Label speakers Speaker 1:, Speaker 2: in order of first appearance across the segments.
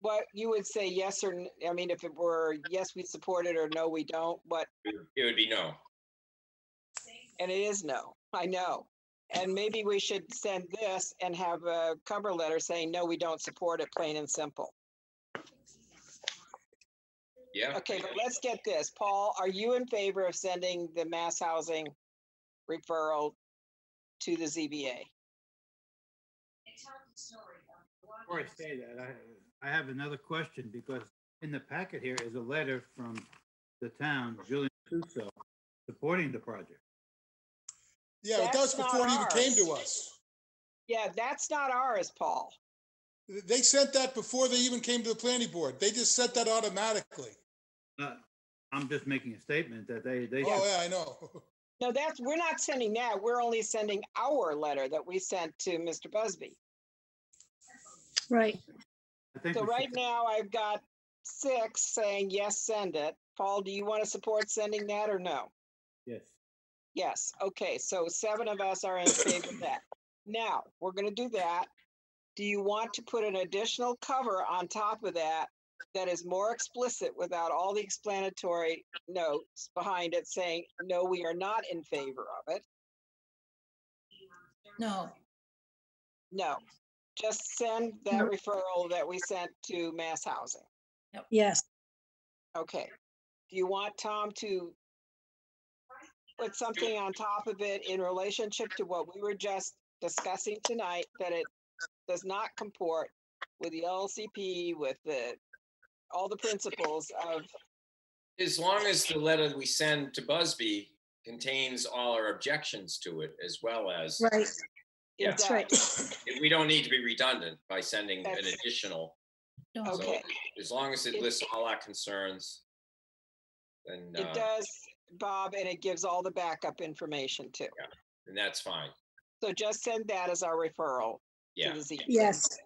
Speaker 1: what you would say yes or, n- I mean, if it were, yes, we support it or no, we don't, but,
Speaker 2: It would be no.
Speaker 1: and it is no, I know. And maybe we should send this and have a cover letter saying, no, we don't support it, plain and simple.
Speaker 2: Yeah.
Speaker 1: Okay, but let's get this. Paul, are you in favor of sending the mass housing referral to the ZBA?
Speaker 3: Before I say that, I, I have another question because in the packet here is a letter from the town, Julian Suso, supporting the project.
Speaker 4: Yeah, but that was
Speaker 1: That's
Speaker 4: before it even
Speaker 1: not
Speaker 4: came to
Speaker 1: ours.
Speaker 4: us.
Speaker 1: Yeah, that's not ours, Paul.
Speaker 4: They sent that before they even came to the planning board. They just sent that automatically.
Speaker 3: Uh, I'm just making a statement that they, they,
Speaker 4: Oh, yeah, I know.
Speaker 1: No, that's, we're not sending that. We're only sending our letter that we sent to Mr. Busby.
Speaker 5: Right.
Speaker 3: I think.
Speaker 1: So
Speaker 3: we should-
Speaker 1: right now I've got six saying, yes, send it. Paul, do you want to support sending that or no?
Speaker 3: Yes.
Speaker 1: Yes, okay, so seven of us are in favor of that. Now, we're gonna do that. Do you want to put an additional cover on top of that that is more explicit without all the explanatory notes behind it saying, no, we are not in favor of it?
Speaker 6: No,
Speaker 1: No, just send that referral that we sent to Mass Housing.
Speaker 5: Yes.
Speaker 1: Okay. Do you want Tom to put something on top of it in relationship to what we were just discussing tonight, that it does not comport with the LCP, with the, all the principles of,
Speaker 2: As long as the letter we send to Busby contains all our objections to it as well as
Speaker 5: Right.
Speaker 1: it
Speaker 2: Yeah.
Speaker 5: That's right.
Speaker 2: we don't need to be redundant by sending an
Speaker 1: That's-
Speaker 2: additional.
Speaker 1: does.
Speaker 2: So
Speaker 1: Okay,
Speaker 2: As long as it lists all our concerns, then,
Speaker 1: it
Speaker 2: uh,
Speaker 1: does, Bob, and it gives all the backup information too.
Speaker 2: then that's fine.
Speaker 1: So just send that as our referral to
Speaker 2: Yeah.
Speaker 1: the ZBA.
Speaker 5: Yes.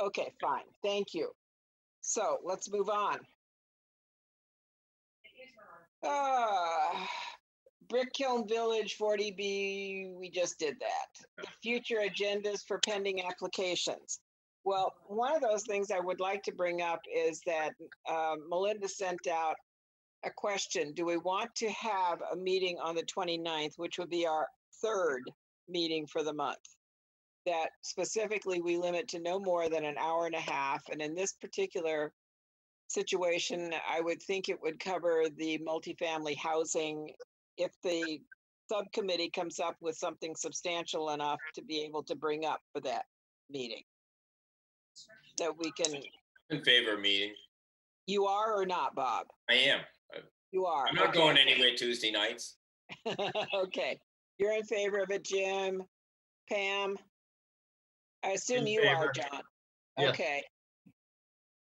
Speaker 1: Okay, fine, thank you. So let's move on. Uh, Brick Kiln Village, forty B, we just did that. The future agendas for pending applications. Well, one of those things I would like to bring up is that um, Melinda sent out a question, do we want to have a meeting on the 29th, which would be our third meeting for the month? That specifically we limit to no more than an hour and a half, and in this particular situation, I would think it would cover the multifamily housing if the subcommittee comes up with something substantial enough to be able to bring up for that meeting. That we can,
Speaker 2: In favor of meeting.
Speaker 1: you are or not, Bob?
Speaker 2: I am.
Speaker 1: You are.
Speaker 2: I'm not
Speaker 1: Uh, okay.
Speaker 2: going anywhere Tuesday nights.
Speaker 1: Okay, you're in favor of it, Jim, Pam? I assume you are, John. Okay.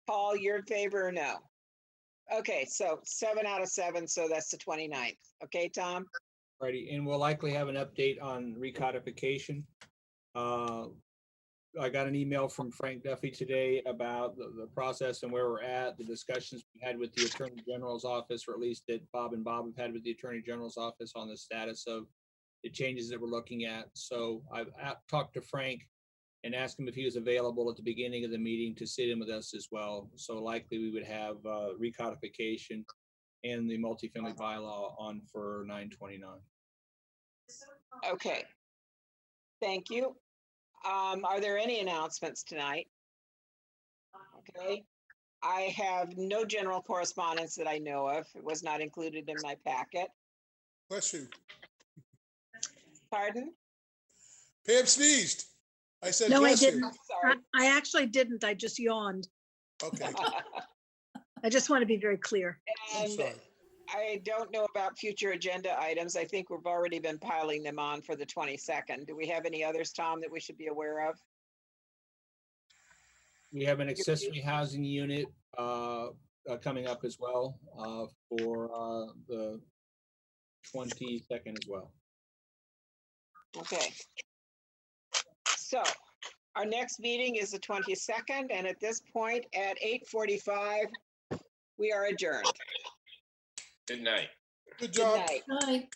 Speaker 1: Paul, you're in favor or no? Okay, so seven out of seven, so that's the 29th. Okay, Tom?
Speaker 7: Righty, and we'll likely have an update on recodification. Uh, I got an email from Frank Duffy today about the, the process and where we're at, the discussions we had with the Attorney General's office, or at least that Bob and Bob have had with the Attorney General's office on the status of the changes that we're looking at. So I've a- talked to Frank and asked him if he was available at the beginning of the meeting to sit in with us as well. So likely we would have, uh, recodification and the multifamily bylaw on for nine twenty-nine.
Speaker 1: Okay. Thank you. Um, are there any announcements tonight? Okay, I have no general correspondence that I know of. It was not included in my packet.
Speaker 4: Bless you.
Speaker 1: Pardon?
Speaker 4: Pam sneezed. I said,
Speaker 5: No, I
Speaker 4: bless you.
Speaker 5: didn't. I
Speaker 1: Sorry.
Speaker 5: I actually didn't. I just yawned.
Speaker 4: Okay,
Speaker 5: I just want to be very clear.
Speaker 4: I'm
Speaker 1: And
Speaker 4: sorry.
Speaker 1: I don't know about future agenda items. I think we've already been piling them on for the 22nd. Do we have any others, Tom, that we should be aware of?
Speaker 7: We have an accessory housing unit uh, uh, coming up as well uh, for uh, the twenty-second as well.
Speaker 1: Okay. So our next meeting is the 22nd, and at this point, at 8:45, we are adjourned.
Speaker 2: Good night.
Speaker 1: Good
Speaker 4: Good job.
Speaker 1: night.
Speaker 6: Hi.